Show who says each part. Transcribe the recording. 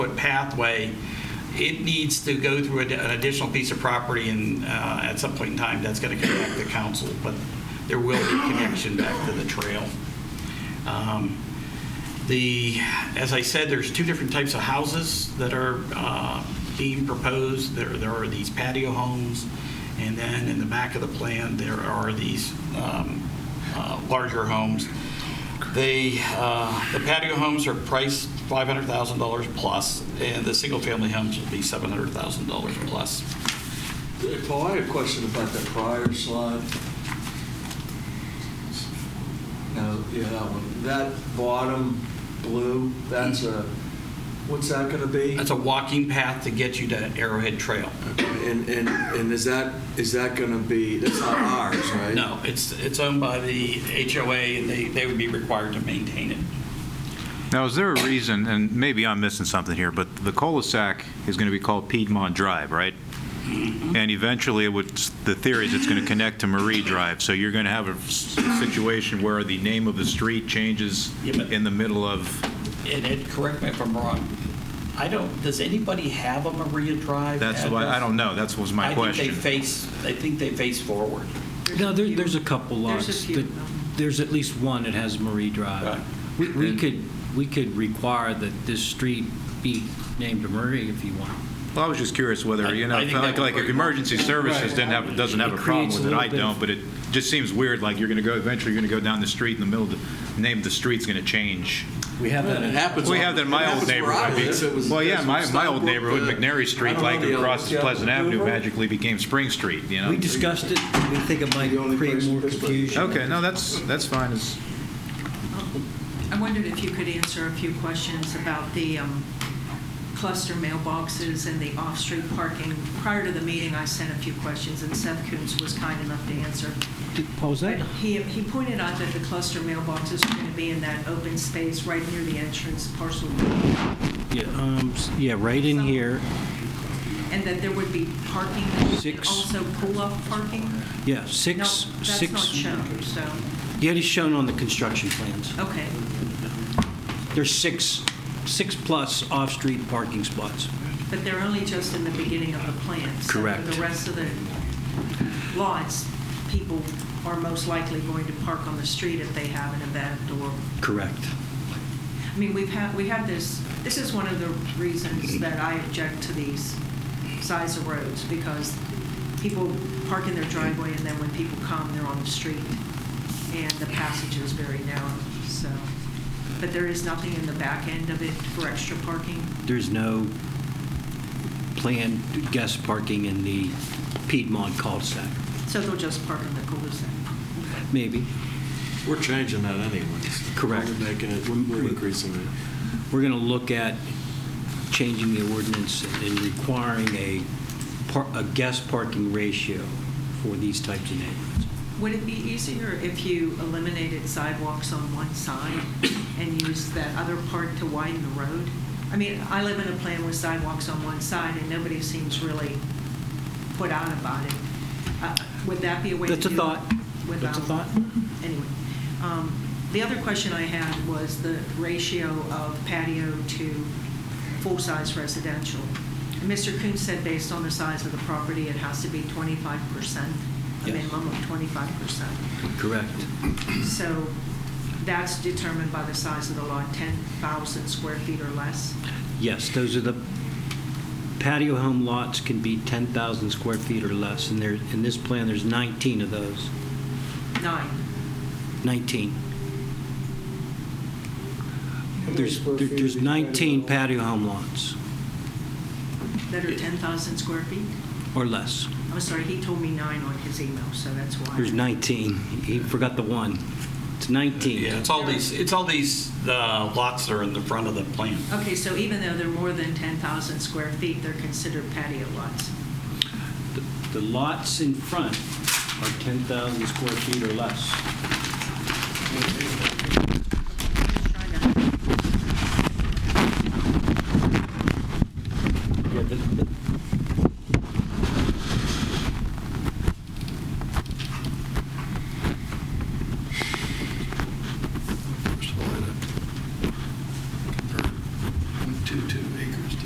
Speaker 1: foot pathway, it needs to go through ad- an additional piece of property and uh, at some point in time, that's going to connect the council, but there will be connection back to the trail. Um, The, as I said, there's two different types of houses that are uh, being proposed. There there are these patio homes, and then in the back of the plan, there are these um, uh, larger homes. They, uh, the patio homes are priced $500,000 plus, and the single-family homes will be $700,000 plus.
Speaker 2: Paul, I had a question about the prior slide. No, yeah, that one. That bottom blue, that's a, what's that going to be?
Speaker 1: That's a walking path to get you to Arrowhead Trail.
Speaker 2: And, and, and is that, is that going to be, that's not ours, right?
Speaker 1: No, it's, it's owned by the HOA, and they, they would be required to maintain it.
Speaker 3: Now, is there a reason, and maybe I'm missing something here, but the cul-de-sac is going to be called Piedmont Drive, right?
Speaker 1: Mm-hmm.
Speaker 3: And eventually, it would, the theory is it's going to connect to Marie Drive, so you're going to have a s- situation where the name of the street changes
Speaker 1: Yeah, but-
Speaker 3: in the middle of,
Speaker 1: And Ed, correct me if I'm wrong, I don't, does anybody have a Maria Drive?
Speaker 3: that's why, I
Speaker 1: address?
Speaker 3: don't know, that was my
Speaker 1: I think they
Speaker 3: question.
Speaker 1: face, I think they face forward.
Speaker 4: No, there, there's a couple
Speaker 5: There's a
Speaker 4: lots.
Speaker 5: few.
Speaker 4: that- There's at least one that has Marie
Speaker 1: Right.
Speaker 4: Drive. We, we could, we could require that this street be named Marie if you want.
Speaker 3: Well, I was just curious
Speaker 1: I-
Speaker 3: whether, you know,
Speaker 1: I think that
Speaker 3: like,
Speaker 1: would
Speaker 3: like if
Speaker 1: break-
Speaker 3: emergency services didn't have, doesn't have a
Speaker 4: It
Speaker 3: problem
Speaker 4: creates a
Speaker 3: with it, I
Speaker 4: little bit of-
Speaker 3: don't, but it just seems weird, like you're going to go, eventually, you're going to go down the street in the middle, of the name of the street's going to change.
Speaker 4: We have that. in-
Speaker 2: happens.
Speaker 3: We have that in my old neighborhood. Well, yeah, my, my old neighborhood, McNary Street, like across Pleasant Avenue, magically became Spring Street, you
Speaker 4: We
Speaker 3: know?
Speaker 4: discussed it, we think it might
Speaker 2: The only
Speaker 4: create
Speaker 2: person
Speaker 4: more
Speaker 2: that's-
Speaker 4: confusion.
Speaker 3: Okay, no, that's, that's fine. It's-
Speaker 5: I wondered if you could answer a few questions about the um, cluster mailboxes and the off-street parking. Prior to the meeting, I sent a few questions, and Seth Coons was kind enough to answer.
Speaker 4: What was
Speaker 5: But
Speaker 4: that?
Speaker 5: he, he pointed out that the cluster mailboxes are going to be in that open space right near the entrance parcel,
Speaker 4: Yeah, um, s- yeah, right in here.
Speaker 5: and that there would be parking and
Speaker 4: Six.
Speaker 5: also pull-up parking?
Speaker 4: Yeah,
Speaker 5: No,
Speaker 4: six,
Speaker 5: that's not
Speaker 4: six.
Speaker 5: shown, so,
Speaker 4: Yeah, it is shown on the construction plans.
Speaker 5: okay.
Speaker 4: There's six, six-plus off-street parking spots.
Speaker 5: But they're only just in the beginning of the plan. so
Speaker 4: Correct.
Speaker 5: For the rest of the lots, people are most likely going to park on the street if they have an event or,
Speaker 4: Correct.
Speaker 5: I mean, we've had, we have this, this is one of the reasons that I object to these size of roads, because people park in their driveway, and then when people come, they're on the street, and the passage is very narrow, so. But there is nothing in the back end of it for extra parking?
Speaker 4: There's no planned guest parking in the Piedmont cul-de-sac.
Speaker 5: So they'll just park in the cul-de-sac.
Speaker 4: Maybe.
Speaker 6: We're changing that anyways.
Speaker 4: Correct.
Speaker 6: We're making it, we're we're increasing it.
Speaker 4: We're going to look at changing the ordinance and requiring a, par- a guest parking ratio for these types of neighborhoods.
Speaker 5: Would it be easier if you eliminated sidewalks on one side and used that other part to widen the road? I mean, I live in a plan with sidewalks on one side, and nobody seems really put out about it. Uh, Would that be a way to do it?
Speaker 4: That's a thought.
Speaker 5: without-
Speaker 4: That's a thought.
Speaker 5: Anyway, um, the other question I had was the ratio of patio to full-size residential. And Mr. Coon said based on the size of the property, it has to be 25%, a
Speaker 4: Yes.
Speaker 5: minimum of 25%.
Speaker 4: Correct.
Speaker 5: So that's determined by the size of the lot, 10,000 square feet or less.
Speaker 4: Yes, those are the, patio home lots can be 10,000 square feet or less, and there, in this plan, there's 19 of those,
Speaker 5: Nine.
Speaker 4: 19.
Speaker 2: many
Speaker 4: There's,
Speaker 2: square
Speaker 4: there-
Speaker 2: feet
Speaker 4: there's
Speaker 2: is each patio
Speaker 4: 19
Speaker 2: home?
Speaker 4: patio home lots
Speaker 5: That are 10,000 square feet?
Speaker 4: or less.
Speaker 5: I'm sorry, he told me nine on his email, so that's why.
Speaker 4: There's 19. He forgot the one. It's 19.
Speaker 1: Yeah, it's all these, it's all these uh, lots that are in the front of the plan.
Speaker 5: Okay, so even though they're more than 10,000 square feet, they're considered patio lots.
Speaker 4: The- The lots in front are 10,000 square feet or less.
Speaker 5: Just trying to-
Speaker 4: Yeah, the- the-